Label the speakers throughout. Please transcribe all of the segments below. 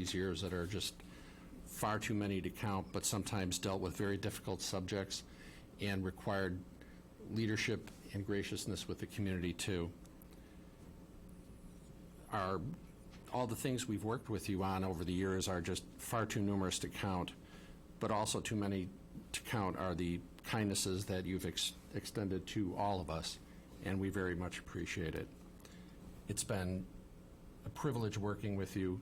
Speaker 1: these years that are just far too many to count, but sometimes dealt with very difficult subjects and required leadership and graciousness with the community, too. Our, all the things we've worked with you on over the years are just far too numerous to count, but also too many to count are the kindnesses that you've ex- extended to all of us, and we very much appreciate it. It's been a privilege working with you,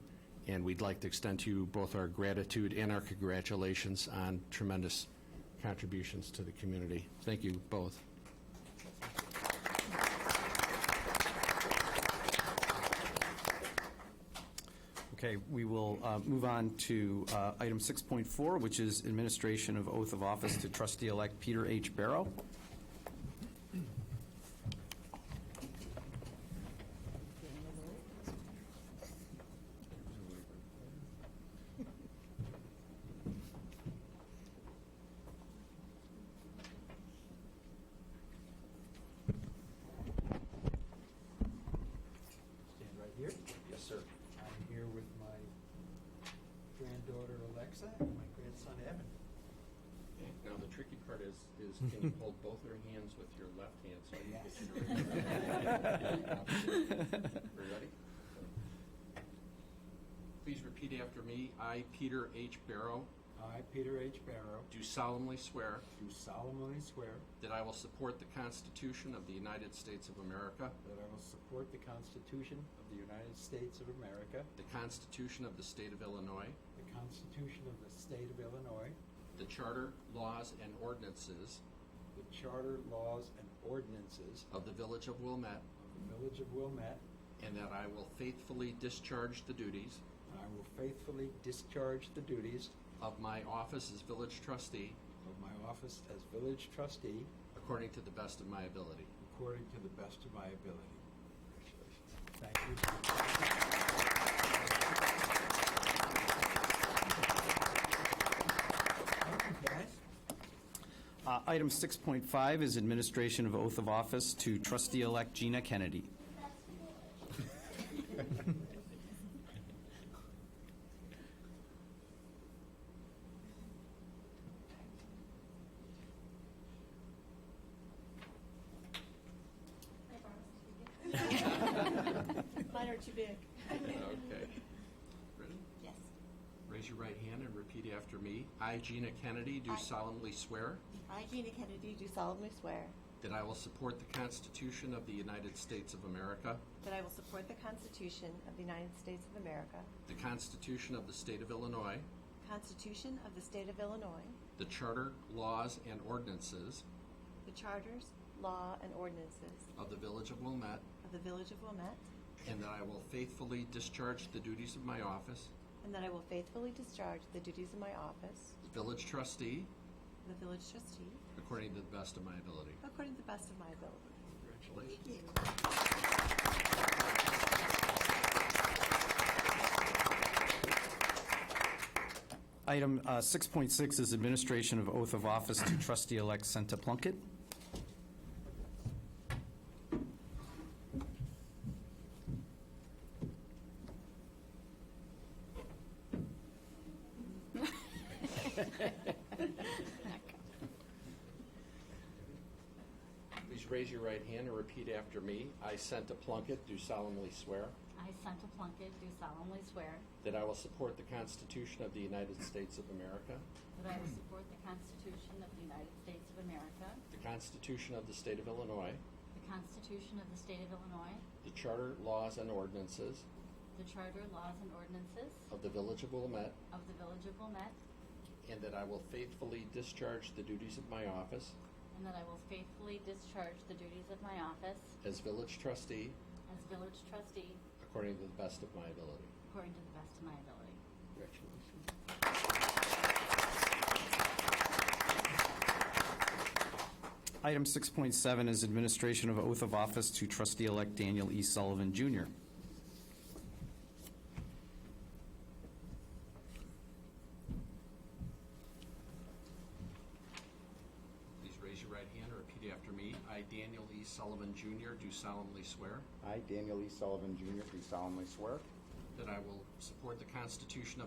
Speaker 1: and we'd like to extend to you both our gratitude and our congratulations on tremendous contributions to the community. Thank you both.
Speaker 2: Okay, we will uh, move on to uh, item 6.4, which is administration of oath of office to trustee-elect Peter H. Barrow.
Speaker 3: Stand right here. Yes, sir. I'm here with my granddaughter Alexa and my grandson Evan.
Speaker 1: Now, the tricky part is, is can you hold both your hands with your left hand so you
Speaker 2: Uh,
Speaker 1: Are you ready? Please repeat after me. I, Peter H. Barrow,
Speaker 3: I, Peter H. Barrow,
Speaker 1: do solemnly swear
Speaker 3: do solemnly swear
Speaker 1: that I will support the Constitution of the United States of America,
Speaker 3: that I will support the Constitution of the United States of America,
Speaker 1: the Constitution of the State of Illinois,
Speaker 3: the Constitution of the State of Illinois,
Speaker 1: the Charter, laws, and ordinances
Speaker 3: the Charter, laws, and ordinances
Speaker 1: of the Village of Wilmette,
Speaker 3: of the Village of Wilmette,
Speaker 1: and that I will faithfully discharge the duties
Speaker 3: and I will faithfully discharge the duties
Speaker 1: of my office as village trustee
Speaker 3: of my office as village trustee
Speaker 1: according to the best of my ability.
Speaker 3: according to the best of my ability. Congratulations. Thank you.
Speaker 2: Uh, Item 6.5 is administration of oath of office to trustee-elect Gina Kennedy.
Speaker 4: Mine are too big.
Speaker 1: Okay. Ready?
Speaker 4: Yes.
Speaker 1: Raise your right hand and repeat after me. I, Gina Kennedy, do
Speaker 4: I-
Speaker 1: solemnly swear
Speaker 4: I, Gina Kennedy, do solemnly swear
Speaker 1: that I will support the Constitution of the United States of America,
Speaker 4: that I will support the Constitution of the United States of America,
Speaker 1: the Constitution of the State of Illinois,
Speaker 4: the Constitution of the State of Illinois,
Speaker 1: the Charter, laws, and ordinances
Speaker 4: the charters, law, and ordinances
Speaker 1: of the Village of Wilmette,
Speaker 4: of the Village of Wilmette,
Speaker 1: and that I will faithfully discharge the duties of my office,
Speaker 4: and that I will faithfully discharge the duties of my office,
Speaker 1: Village Trustee,
Speaker 4: the Village Trustee,
Speaker 1: according to the best of my ability.
Speaker 4: according to the best of my ability.
Speaker 1: Congratulations.
Speaker 2: Item uh, 6.6 is administration of oath of office to trustee-elect Senta Plunkett.
Speaker 1: Please raise your right hand and repeat after me. I, Senta Plunkett, do solemnly swear
Speaker 5: I, Santa Plunkett, do solemnly swear
Speaker 1: that I will support the Constitution of the United States of America,
Speaker 5: that I will support the Constitution of the United States of America,
Speaker 1: the Constitution of the State of Illinois,
Speaker 5: the Constitution of the State of Illinois,
Speaker 1: the Charter, laws, and ordinances
Speaker 5: the Charter, laws, and ordinances
Speaker 1: of the Village of Wilmette,
Speaker 5: of the Village of Wilmette,
Speaker 1: and that I will faithfully discharge the duties of my office
Speaker 5: and that I will faithfully discharge the duties of my office
Speaker 1: as Village Trustee
Speaker 5: as Village Trustee
Speaker 1: according to the best of my ability.
Speaker 5: according to the best of my ability.
Speaker 1: Congratulations.
Speaker 2: Item 6.7 is administration of oath of office to trustee-elect Daniel E. Sullivan, Jr.
Speaker 1: Please raise your right hand and repeat after me. I, Daniel E. Sullivan, Jr., do solemnly swear
Speaker 6: I, Daniel E. Sullivan, Jr., do solemnly swear
Speaker 1: that I will support the Constitution of